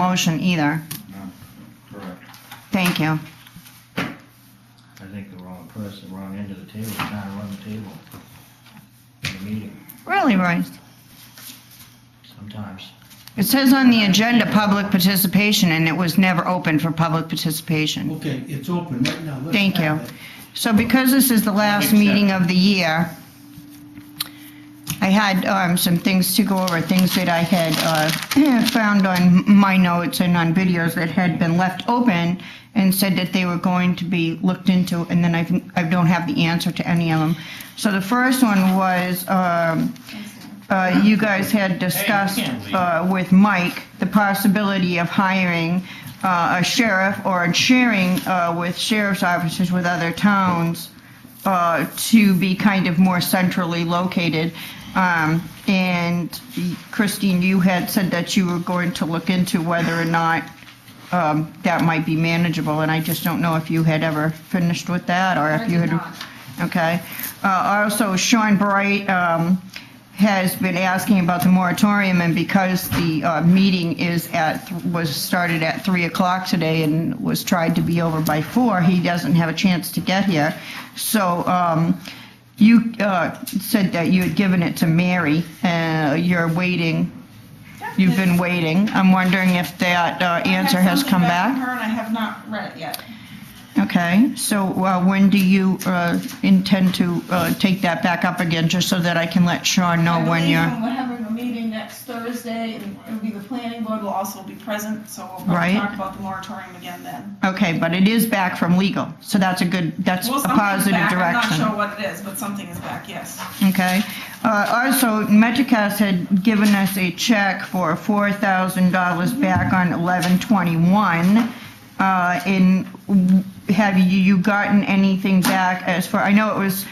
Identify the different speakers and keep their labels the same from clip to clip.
Speaker 1: motion either.
Speaker 2: Correct.
Speaker 1: Thank you.
Speaker 2: I think the wrong person, wrong end of the table, trying to run the table. In the meeting,
Speaker 1: Really, Royce?
Speaker 2: sometimes.
Speaker 1: It says on the agenda, public participation, and it was never open for public participation.
Speaker 3: Okay, it's open right now. Let's
Speaker 1: Thank
Speaker 3: have
Speaker 1: you.
Speaker 3: it.
Speaker 1: So because this is the last meeting of the year, I had um, some things to go over, things that I had uh, found on my notes and on videos that had been left open and said that they were going to be looked into, and then I can- I don't have the answer to any of them. So the first one was, um, uh, you guys had discussed uh, with Mike the possibility of hiring uh, a sheriff or sharing uh, with sheriff's officers with other towns uh, to be kind of more centrally located. Um, And Christine, you had said that you were going to look into whether or not um, that might be manageable, and I just don't know if you had ever finished with that, or if you had...
Speaker 4: did not.
Speaker 1: Okay. Uh, Also, Sean Bright um, has been asking about the moratorium, and because the uh, meeting is at, was started at 3 o'clock today and was tried to be over by 4, he doesn't have a chance to get here. So um, you uh, said that you had given it to Mary, and you're waiting, you've been waiting. I'm wondering if that uh,
Speaker 4: I have
Speaker 1: answer has
Speaker 4: something
Speaker 1: come
Speaker 4: back from
Speaker 1: back?
Speaker 4: her and I have not read it yet.
Speaker 1: Okay, so uh, when do you uh, intend to uh, take that back up again, just so that I can let Sean know
Speaker 4: I
Speaker 1: when
Speaker 4: believe
Speaker 1: you're,
Speaker 4: when We're having a meeting next Thursday, and it'll be the planning board will also be present, so we'll
Speaker 1: Right.
Speaker 4: probably talk about the moratorium again then.
Speaker 1: okay, but it is back from legal, so that's a good, that's a
Speaker 4: Well, something's
Speaker 1: positive
Speaker 4: back. I'm not
Speaker 1: direction.
Speaker 4: sure what it is, but something is back, yes.
Speaker 1: Okay, Uh, also, Metricast had given us a check for $4,000
Speaker 4: Mm-hmm.
Speaker 1: back on 11/21. Uh, In, have you you gotten anything back as far, I know it was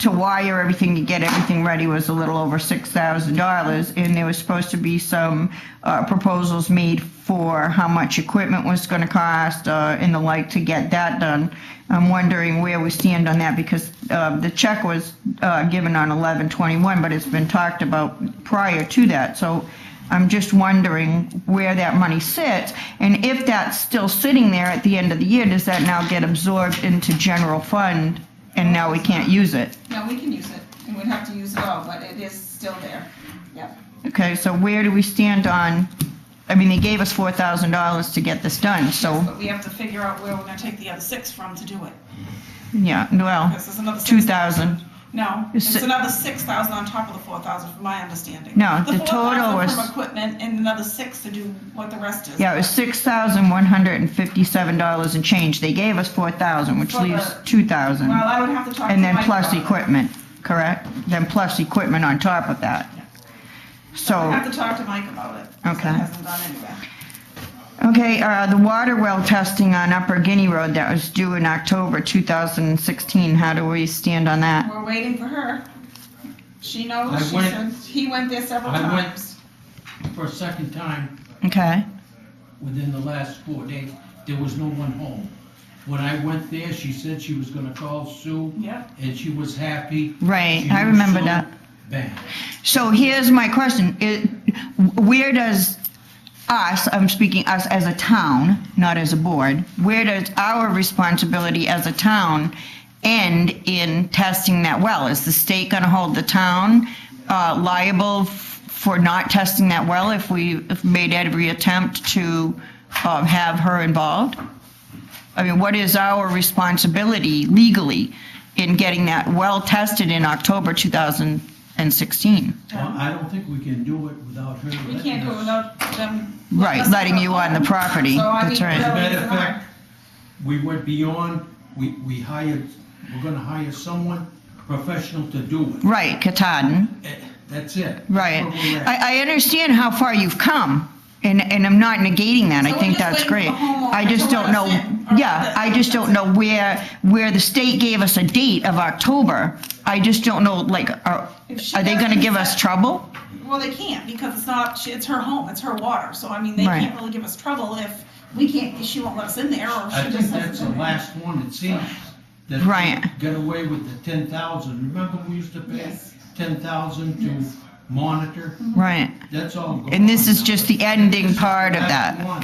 Speaker 1: to wire everything, to get everything ready was a little over $6,000, and there was supposed to be some uh, proposals made for how much equipment was going to cost uh, and the like to get that done. I'm wondering where we stand on that, because uh, the check was uh, given on 11/21, but it's been talked about prior to that, so I'm just wondering where that money sits, and if that's still sitting there at the end of the year, does that now get absorbed into general fund, and now we can't use it?
Speaker 4: No, we can use it, and we'd have to use it all, but it is still there. Yep.
Speaker 1: Okay, so where do we stand on, I mean, they gave us four thousand dollars to get this done, so,
Speaker 4: But we have to figure out where we're gonna take the other six from to do it.
Speaker 1: yeah, well,
Speaker 4: This is another six.
Speaker 1: two thousand.
Speaker 4: No,
Speaker 1: It's
Speaker 4: it's
Speaker 1: si-
Speaker 4: another six thousand on top of the four thousand, from my understanding.
Speaker 1: No, the total
Speaker 4: 4,000
Speaker 1: was-
Speaker 4: From equipment and another six to do what the rest is.
Speaker 1: Yeah, it was six thousand one hundred and fifty-seven dollars and change. They gave us four thousand, which
Speaker 4: For the-
Speaker 1: leaves two thousand.
Speaker 4: Well, I would have to talk to
Speaker 1: And then
Speaker 4: Mike
Speaker 1: plus
Speaker 4: about it.
Speaker 1: equipment, correct? Then plus equipment on top of that.
Speaker 4: I
Speaker 1: So,
Speaker 4: have to talk to Mike about it. 'cause
Speaker 1: Okay.
Speaker 4: It hasn't gone anywhere.
Speaker 1: okay, uh, the water well testing on Upper Guinea Road that was due in October two thousand and sixteen, how do we stand on that?
Speaker 4: We're waiting for her. She
Speaker 3: I
Speaker 4: knows, she
Speaker 3: went-
Speaker 4: said, he went there several
Speaker 3: I went-
Speaker 4: times.
Speaker 3: For a second time
Speaker 1: Okay,
Speaker 3: within the last four days, there was no one home. When I went there, she said she was gonna call Sue,
Speaker 4: Yeah.
Speaker 3: and she was happy.
Speaker 1: right,
Speaker 3: She
Speaker 1: I
Speaker 3: knew
Speaker 1: remember
Speaker 3: Sue.
Speaker 1: that.
Speaker 3: Bang.
Speaker 1: So here's my question. It, where does us, I'm speaking us as a town, not as a board, where does our responsibility as a town end in testing that well? Is the state going to hold the town uh, liable f- for not testing that well if we if made every attempt to uh, have her involved? I mean, what is our responsibility legally in getting that well tested in October 2016?
Speaker 3: Well, I don't think we can do it without her.
Speaker 4: We
Speaker 3: letting
Speaker 4: can't do it
Speaker 3: us-
Speaker 4: without them.
Speaker 1: Right,
Speaker 4: letting
Speaker 1: letting
Speaker 4: us
Speaker 1: you
Speaker 4: go
Speaker 1: on the
Speaker 4: home.
Speaker 1: property.
Speaker 4: So I
Speaker 1: That's
Speaker 4: mean,
Speaker 1: right.
Speaker 3: As a
Speaker 4: really,
Speaker 3: matter
Speaker 4: it's
Speaker 3: of
Speaker 4: not-
Speaker 3: fact, we went beyond, we, we hired, we're gonna hire someone professional to do it.
Speaker 1: Right, Katahdin.
Speaker 3: Eh, That's it. That's
Speaker 1: Right.
Speaker 3: where we're at.
Speaker 1: I, I understand how far you've come, and, and I'm not negating that, I
Speaker 4: So
Speaker 1: think
Speaker 4: we're just
Speaker 1: that's great.
Speaker 4: waiting for the homeowner
Speaker 1: I just
Speaker 4: to
Speaker 1: don't
Speaker 4: let
Speaker 1: know,
Speaker 4: us in, or
Speaker 1: yeah,
Speaker 4: let-
Speaker 1: I just don't know where, where the state gave us a date of October. I just don't know, like, are,
Speaker 4: If she
Speaker 1: are they gonna
Speaker 4: doesn't
Speaker 1: give us
Speaker 4: accept-
Speaker 1: trouble?
Speaker 4: Well, they can't because it's not, she- it's her home, it's her water. So I mean, they
Speaker 1: Right.
Speaker 4: can't really give us trouble if we can't, she won't let us in there or
Speaker 3: I
Speaker 4: she
Speaker 3: think
Speaker 4: just
Speaker 3: that's
Speaker 4: says.
Speaker 3: the last one, it seems, that
Speaker 1: Right.
Speaker 3: we got away with the ten thousand, remember we used to pay
Speaker 4: Yes.
Speaker 3: ten thousand to monitor?
Speaker 1: Right,
Speaker 5: That's all.
Speaker 3: And this is just the ending part of that.